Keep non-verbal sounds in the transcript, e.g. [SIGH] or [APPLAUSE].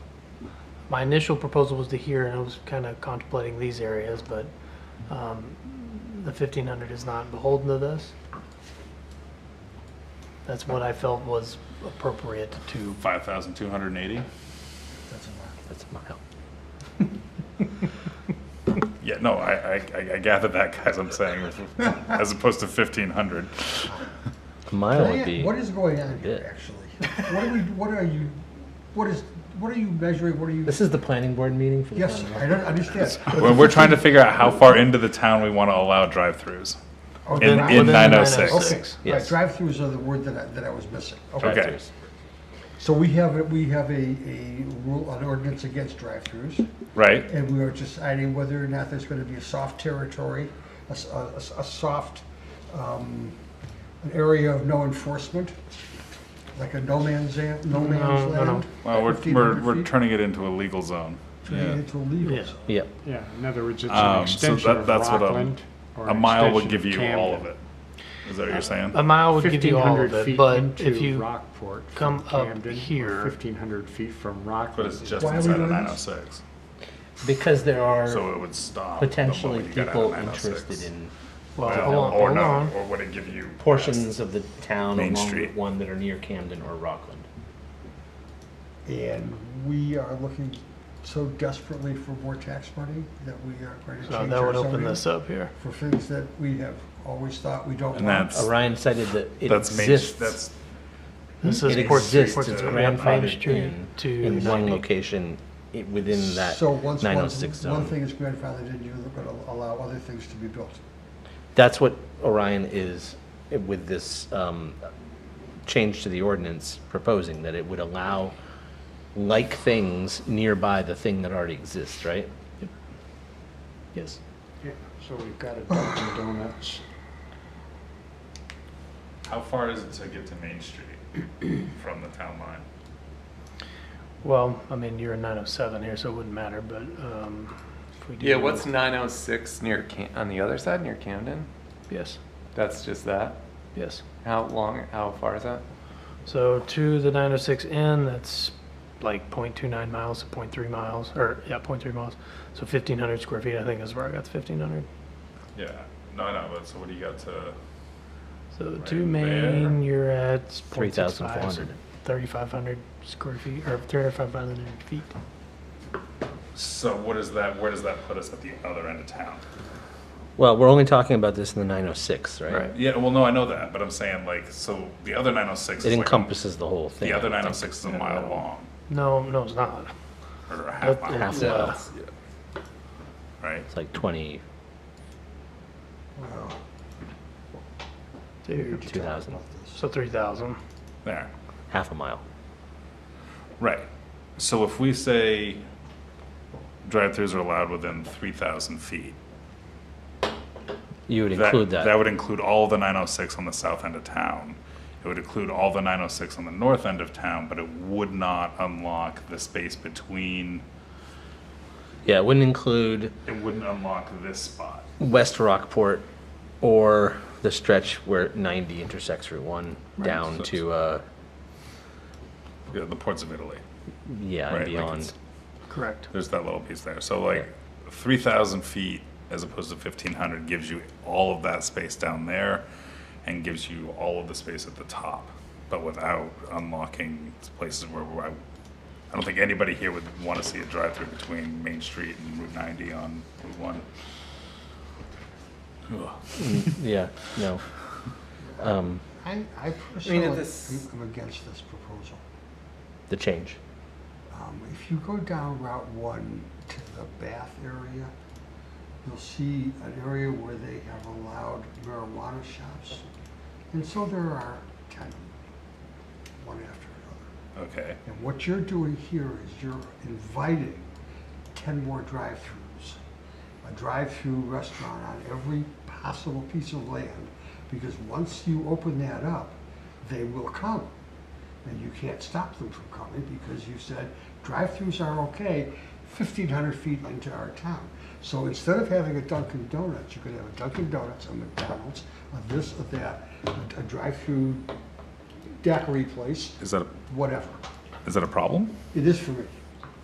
my initial proposal was to here, and I was kind of contemplating these areas, but um, the fifteen hundred is not beholden to this. That's what I felt was appropriate to. Five thousand two hundred and eighty? That's a mile. Yeah, no, I, I, I- I gather that, guys, I'm saying, as opposed to fifteen hundred. A mile Can I would be. ask- What is going on bit. here, actually? What are we, what are you, what is, what are you measuring, what are you? This is the planning board meeting for the Yes, town, I right? don't understand. [LAUGHS] Well, we're trying to figure out how far into the town we want to allow drive-throughs. Okay, In, right. in the nine oh six. Okay, right, Yes. drive-throughs are the word that I, that I was missing. Okay, Okay. Drive-throughs. so we have, a- we have a, a rule, an ordinance against drive-throughs, Right, and we are deciding whether or not there's gonna be a soft territory, a, s- a- a s- a soft, um, an area of no enforcement, like a no man's, an- no No, man's no, no. land. well, we're, 1,500 we're, we're feet, turning it into a legal zone. Turning it into Yeah. illegal. Yep. Yeah, in other words, it's Um, so an extension that- of that's what a- Rockland. or A an mile would give extension you all of Camden. it. Is that what you're saying? Um, A mile would give you all of 1,500 it, feet but if into you, Rockport come from up Camden, here- or 1,500 feet from But Rockland. it's just Why are we inside of doing nine oh this? six, Because there are so it would stop. the potentially moment you got out of people 906. interested in well, hold on, Well, Or Oh, hold not, on. or would it give you? portions of the town Main along Street. Route One that are near Camden or Rockland. And we are looking so desperately for more tax money that we are going to So change Uh, that our would open zoning this up here. for things that we have always thought we don't And want. that's, Orion Uh, cited that it that's main, exists. that's, This Hmm. It is Port Street. exists, Port it's Street, Main grandfathered Street in, to in one 90. location, i- within that So once, nine oh one, six one zone. thing is grandfathered in, you're going to allow other things to be built. That's what Orion is eh, with this um, change to the ordinance proposing, that it would allow like things nearby the thing that already exists, right? Yes. Yeah, So we've got a Dunkin' Donuts. how far is it to get to Main Street [CLEARS THROAT] from the town line? Well, I mean, you're in 907 here, so it wouldn't matter, but um, if we do. Yeah, what's 906 near Cam- on the other side near Camden? Yes, That's just that. yes. How long? How far is that? So to the 906 N, that's like 0.29 miles to 0.3 miles, or yeah, 0.3 miles. So 1,500 square feet, I think is where I got the 1,500. Yeah, no, I know, but so what do you got to? So Right to Main, there. you're at 0.65, so 3,400. 3,500 square feet, or 3,500 feet. So what is that, where does that put us at the other end of town? Well, we're only talking about this in the nine oh six, right? Right. Yeah, well, no, I know that, but I'm saying like, so the other nine oh six. It encompasses the whole thing. The other I nine oh think. six is a mile long, No, no, it's not. or a half That- mile, Half Yeah. mile, right? it's like twenty, Dude. two thousand, So 3,000. There, half a mile. right. So if we say drive-throughs are allowed within three thousand feet. You would include that. That would include all the nine oh six on the south end of town. It would include all the nine oh six on the north end of town, but it would not unlock the space between, Yeah, it wouldn't include it wouldn't unlock this spot. West Rockport or the stretch where ninety intersects Route One down so- to, uh, Yeah, the ports of Italy. yeah, Right, and like beyond. it's- Correct. There's that little piece there. So like three thousand feet as opposed to fifteen hundred gives you all of that space down there and gives you all of the space at the top, but without unlocking places where where I, I don't think anybody here would want to see a drive-through between Main Street and Route ninety on Route one. Ugh. Yeah, no. Um, I, I personally am this- am against this proposal. the change. Um, If you go down Route One to the Bath area, you'll see an area where they have allowed marijuana shops. And so there are ten, one after another. Okay, And what you're doing here is you're inviting ten more drive-throughs. A drive-through restaurant on every possible piece of land, because once you open that up, they will come and you can't stop them from coming because you said drive-throughs are okay 1,500 feet into our town. So instead of having a Dunkin' Donuts, you could have a Dunkin' Donuts, a McDonald's, a this, a that, a, a drive-through daiquiri place, is that, a whatever. is that a problem? It is for me.